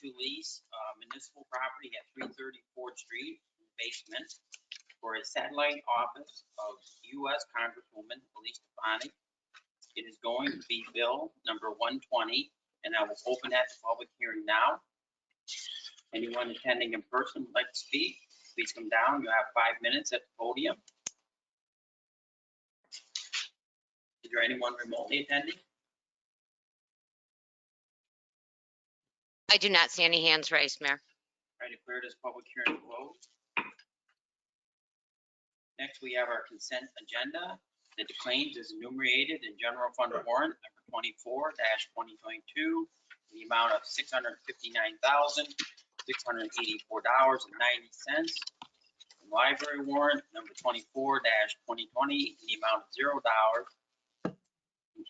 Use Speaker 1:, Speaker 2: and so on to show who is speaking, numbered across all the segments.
Speaker 1: to lease uh, municipal property at three thirty Ford Street basement for a satellite office of US Congresswoman Elise Stefanik. It is going to be bill number one twenty, and I will open that to public hearing now. Anyone attending in person would like to speak, please come down. You have five minutes at the podium. Is there anyone remotely attending?
Speaker 2: I do not see any hands raised, Mayor.
Speaker 1: I declare this public hearing closed. Next, we have our consent agenda. The claims is enumerated in general fund warrant number twenty-four twenty twenty-two, the amount of six hundred fifty-nine thousand, six hundred eighty-four dollars and ninety cents. Library warrant number twenty-four twenty twenty, the amount of zero dollars.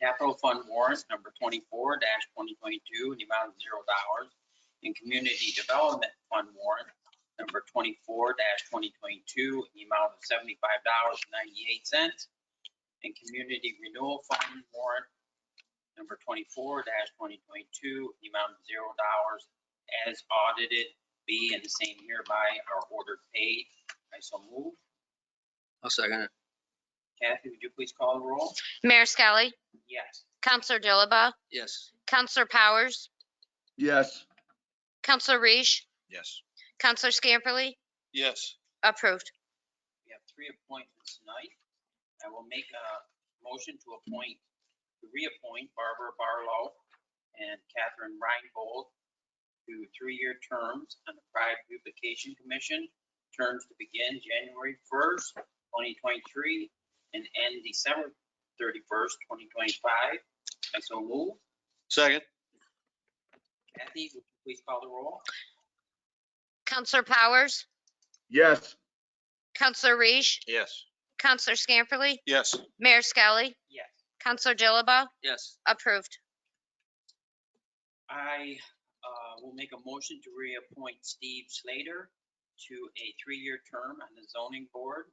Speaker 1: Capital fund warrant number twenty-four twenty twenty-two, the amount of zero dollars and Community Development Fund warrant number twenty-four twenty twenty-two, the amount of seventy-five dollars and ninety-eight cents. And Community Renewal Fund warrant number twenty-four twenty twenty-two, the amount of zero dollars as audited, be and the same hereby are ordered paid. I so move.
Speaker 3: I'll second it.
Speaker 1: Kathy, would you please call the roll?
Speaker 2: Mayor Skelly,
Speaker 1: Yes.
Speaker 2: Counselor Dilaba,
Speaker 3: Yes.
Speaker 2: Counselor Powers,
Speaker 4: yes,
Speaker 2: Counselor Reish,
Speaker 3: Yes.
Speaker 2: Counselor Scamperly,
Speaker 3: Yes.
Speaker 2: approved.
Speaker 1: We have three appointments tonight. I will make a motion to appoint, to reappoint Barbara Barlow and Catherine Reinbold to three-year terms on the Pride Beautification Commission. Terms to begin January first, twenty twenty-three and end December thirty-first, twenty twenty-five. I so move.
Speaker 3: Second.
Speaker 1: Kathy, would you please call the roll?
Speaker 2: Counselor Powers,
Speaker 4: yes,
Speaker 2: Counselor Reish,
Speaker 3: Yes.
Speaker 2: Counselor Scamperly,
Speaker 3: Yes.
Speaker 2: Mayor Skelly,
Speaker 1: Yes.
Speaker 2: Counselor Dilaba,
Speaker 3: Yes.
Speaker 2: approved.
Speaker 1: I uh, will make a motion to reappoint Steve Slater to a three-year term on the zoning board.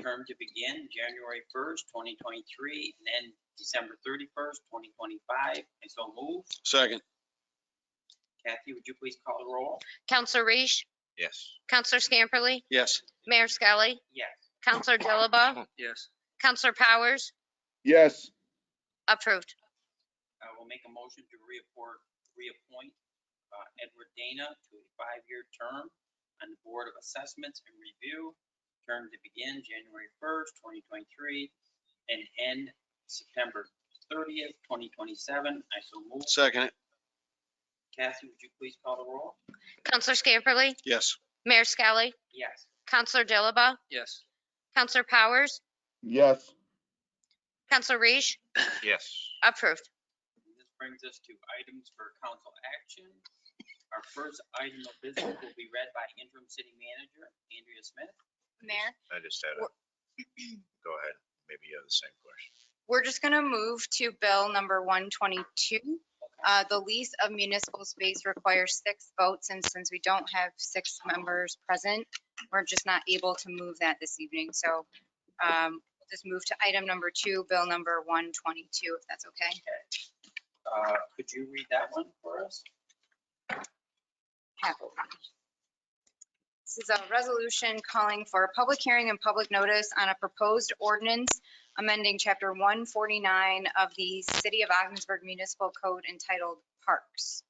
Speaker 1: Term to begin January 1st, 2023, and then December 31st, 2025. And so move.
Speaker 3: Second.
Speaker 1: Kathy, would you please call the roll?
Speaker 2: Counselor Reish,
Speaker 3: Yes.
Speaker 2: Counselor Scamperly,
Speaker 3: Yes.
Speaker 2: Mayor Skelly,
Speaker 1: Yes.
Speaker 2: Counselor Dilaba,
Speaker 3: Yes.
Speaker 2: Counselor Powers,
Speaker 4: yes,
Speaker 2: approved.
Speaker 1: I will make a motion to reappoint, reappoint uh, Edward Dana to a five-year term on the Board of Assessments and Review, term to begin January 1st, 2023, and end September 30th, 2027. I so move.
Speaker 3: Second it.
Speaker 1: Kathy, would you please call the roll?
Speaker 2: Counselor Scamperly,
Speaker 3: Yes.
Speaker 2: Mayor Skelly,
Speaker 1: Yes.
Speaker 2: Counselor Dilaba,
Speaker 3: Yes.
Speaker 2: Counselor Powers,
Speaker 4: yes,
Speaker 2: Counselor Reish,
Speaker 3: Yes.
Speaker 2: approved.
Speaker 1: And This brings us to items for council action. Our first item of business will be read by interim city manager Andrea Smith.
Speaker 5: Mayor,
Speaker 6: I just had a, go ahead, maybe you have the same question.
Speaker 5: we're just going to move to bill number 122. Uh, The lease of municipal space requires six votes, and since we don't have six members present, we're just not able to move that this evening. So um, just move to item number two, bill number 122, if that's okay.
Speaker 1: Uh, Could you read that one for us?
Speaker 5: Happily. This is a resolution calling for a public hearing and public notice on a proposed ordinance amending Chapter 149 of the City of Augsburg Municipal Code entitled Parks.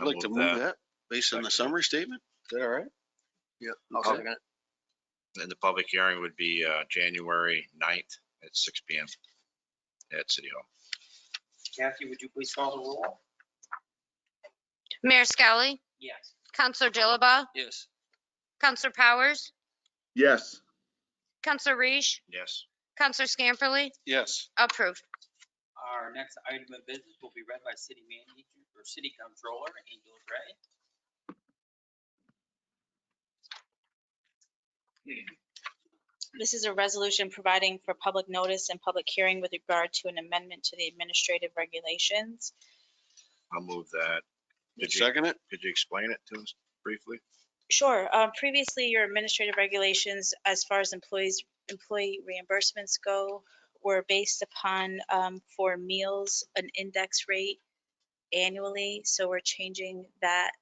Speaker 6: I'll
Speaker 3: I'd like to
Speaker 6: move
Speaker 3: move
Speaker 6: that.
Speaker 3: that based on the
Speaker 6: Second.
Speaker 3: summary statement. Is that all right? Yeah. I'll
Speaker 6: Okay.
Speaker 3: second it.
Speaker 6: And the public hearing would be uh, January 9th at six P M. at City Hall.
Speaker 1: Kathy, would you please call the roll?
Speaker 2: Mayor Skelly,
Speaker 1: Yes.
Speaker 2: Counselor Dilaba,
Speaker 3: Yes.
Speaker 2: Counselor Powers,
Speaker 4: yes,
Speaker 2: Counselor Reish,
Speaker 6: Yes.
Speaker 2: Counselor Scamperly,
Speaker 3: Yes.
Speaker 2: approved.
Speaker 1: Our next item of business will be read by city manager or city controller Angel Gray.
Speaker 7: This is a resolution providing for public notice and public hearing with regard to an amendment to the administrative regulations.
Speaker 6: I'll move that. Did you,
Speaker 3: Second it?
Speaker 6: could you explain it to us briefly?
Speaker 7: Sure, uh, previously, your administrative regulations, as far as employees, employee reimbursements go, were based upon um, for meals, an index rate annually. So we're changing that